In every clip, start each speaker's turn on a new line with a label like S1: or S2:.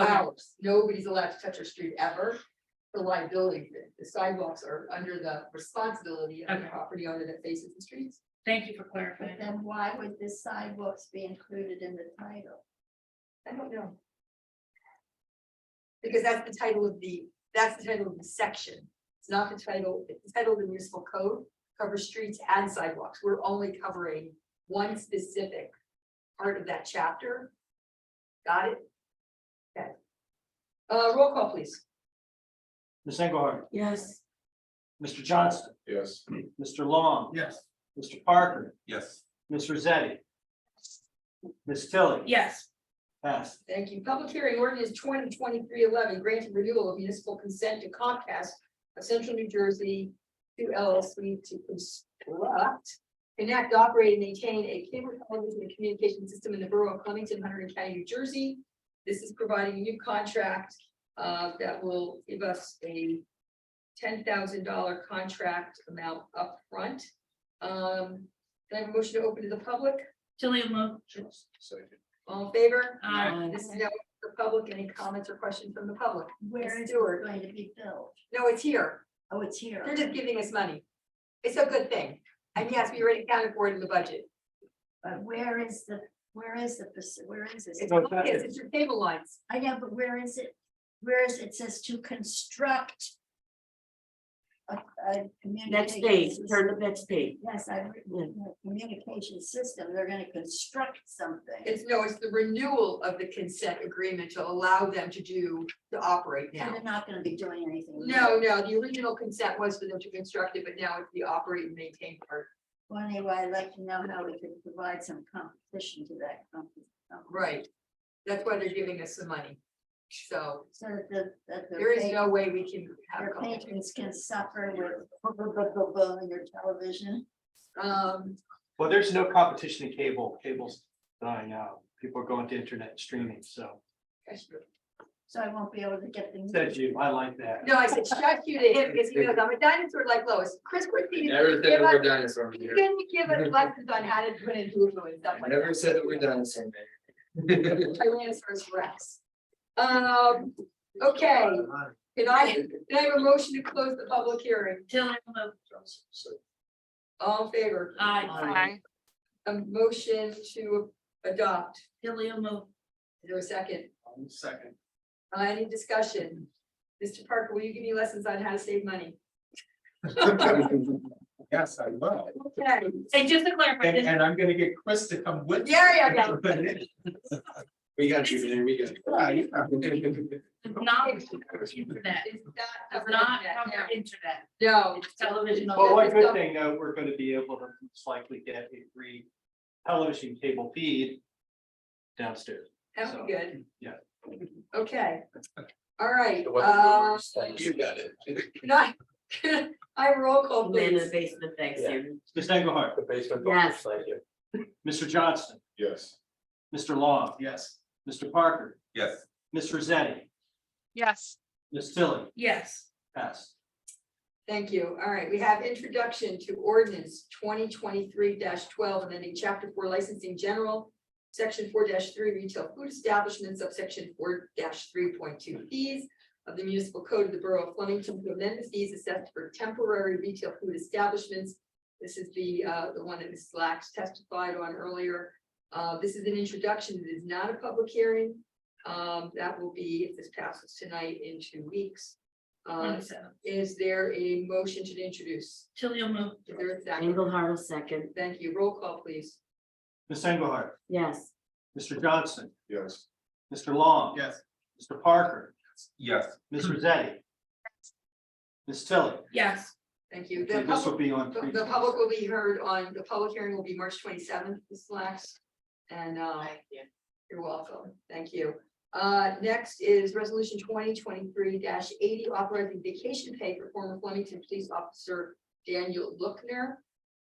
S1: Okay.
S2: ours, nobody's allowed to touch our street ever. The liability, the sidewalks are under the responsibility of the
S1: Okay.
S2: property owner that faces the streets.
S1: Thank you for
S3: But
S1: clarifying.
S3: then why would the sidewalks be included in the title?
S2: I don't know. Because that's the title of the, that's the title of the section. It's not the title, it's the title of the municipal code covers streets and sidewalks. We're only covering one specific part of that chapter. Got it? Okay. Uh, roll call, please.
S4: Ms. Engelhardt?
S5: Yes.
S4: Mr. Johnston?
S6: Yes.
S4: Mr. Long?
S6: Yes.
S4: Mr. Parker?
S6: Yes.
S4: Ms. Rosetti? Ms. Tilly?
S1: Yes,
S4: Passed.
S2: Thank you. Public hearing ordinance 2023-11 granting renewal of municipal consent to Comcast of Central New Jersey to LLC to construct, enact, operate, and maintain a cable television and communication system in the borough of Clemington, Hunter County, New Jersey. This is providing a new contract uh, that will give us a ten thousand dollar contract amount upfront. Um, can I have a motion to open to the public?
S1: Tilly will move. uh,
S6: Second.
S2: All in favor?
S1: Aye.
S5: Aye.
S2: Uh, This is now the public, any comments or questions from the public?
S3: Where
S2: Yes,
S3: is it
S2: Stuart.
S3: going to be built?
S2: No, it's here.
S3: Oh, it's here.
S2: They're just giving us money. It's a good thing. And yes, we already accounted for it in the budget.
S3: But where is the, where is the, faci- where is this?
S2: It's,
S4: No, it's not.
S2: yes, it's your cable lines.
S3: I know, but where is it? Where is, it says to construct a, a
S5: Next
S3: communication
S5: page, turn
S3: system.
S5: to next page.
S3: Yes, I've written a communication system. They're gonna construct something.
S2: It's, no, it's the renewal of the consent agreement to allow them to do, to operate
S3: And
S2: now.
S3: they're not gonna be doing anything. with it.
S2: No, no, the original consent was for them to construct it, but now it's the operate and maintain part.
S3: Well, anyway, I'd like to know how we can provide some competition to that company.
S2: Right. That's why they're giving us the money. So
S3: So that the, that the.
S2: there is
S3: pa-
S2: no way we can have.
S3: Their
S2: competition.
S3: patrons can suffer with boom, boom, boom, boom, boom, and your television.
S2: Um,
S4: Well, there's no competition in cable. Cable's dying out. People are going to internet streaming, so.
S3: So I won't be able to get the.
S4: Said you, I like that.
S2: no, I said, shut you to him because he knows I'm a dinosaur like Lois. Chris Christie.
S6: Never said we're dinosaur
S2: He's
S6: here.
S2: gonna give us lessons on how to do it and do it and stuff like that.
S6: Never said that we're dinosaur man.
S2: Tyrannosaurus rex. Um, okay, can I, can I have a motion to close the public hearing?
S1: Tilly will move.
S2: All in favor?
S1: Aye.
S2: A motion to adopt.
S1: Tilly will move.
S2: Is there a second?
S6: Second.
S2: Uh, any discussion? Mr. Parker, will you give me lessons on how to save money?
S6: Yes, I will.
S2: Okay,
S1: And just to clarify,
S6: And,
S1: this-
S6: and I'm gonna get Chris to come with.
S2: Yeah, yeah,
S6: We got you, man, we got. you.
S1: does not cover internet,
S2: it's not.
S1: does not cover internet,
S2: No.
S1: it's television.
S4: But
S1: only.
S4: one good thing, though, we're going to be able to most likely get a free television cable feed downstairs.
S2: That would be good.
S4: Yeah.
S2: Okay, all right,
S6: It wasn't
S2: uh,
S6: yours, like, You got it.
S2: can I, can I roll call
S5: In the
S2: please?
S5: basement, thanks,
S6: Yeah.
S5: Sandy.
S4: Ms. Engelhardt?
S6: The basement.
S5: door Yes.
S4: Mr. Johnston?
S6: Yes.
S4: Mr. Long?
S6: Yes.
S4: Mr. Parker?
S6: Yes.
S4: Ms. Rosetti?
S7: Yes,
S4: Ms. Tilly?
S1: Yes,
S4: Passed.
S2: Thank you. All right, we have introduction to ordinance twenty twenty-three twelve, amending chapter four licensing general. Section four three retail food establishments, subsection four three point two fees of the municipal code of the borough of Flemington to amend the fees assessed for temporary retail food establishments. This is the uh, the one that Mrs. Lax testified on earlier. Uh, this is an introduction. It is not a public hearing. Um, that will be, if this passes tonight, in two weeks. Uh,
S1: twenty-seven.
S2: is there a motion to introduce?
S1: Tilly will move.
S2: Is there a second?
S5: Engelhardt will second.
S2: Thank you. Roll call, please.
S4: Ms. Engelhardt?
S5: Yes.
S4: Mr. Johnston?
S6: Yes.
S4: Mr. Long?
S6: Yes.
S4: Mr. Parker?
S6: Yes.
S4: Ms. Rosetti? Ms. Tilly?
S1: Yes,
S2: Thank you. The
S4: Okay, This will
S2: public,
S4: be on.
S2: the
S4: three-
S2: the public will be heard on, the public hearing will be March twenty-seventh, Ms. Lax. And, uh, you're welcome. Thank you. Uh, next is resolution twenty twenty-three eighty, authorizing vacation pay for former Flemington Police Officer Daniel Lookner.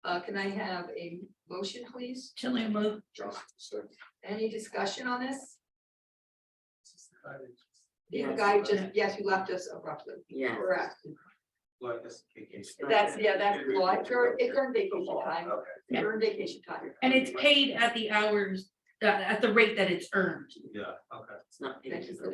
S2: Uh, can I have a motion, please?
S1: Tilly will move.
S6: Johnson, second.
S2: Any discussion on this? The
S5: Yes.
S2: guy just, yes, you left us abruptly.
S5: Yes.
S2: Correct. That's, yeah, that's, well, it's during, it's during vacation time,
S1: Yeah.
S2: during vacation time.
S1: And it's paid at the hours, uh, at the rate that it's earned.
S6: Yeah, okay.
S5: It's not.
S2: Thank you for that.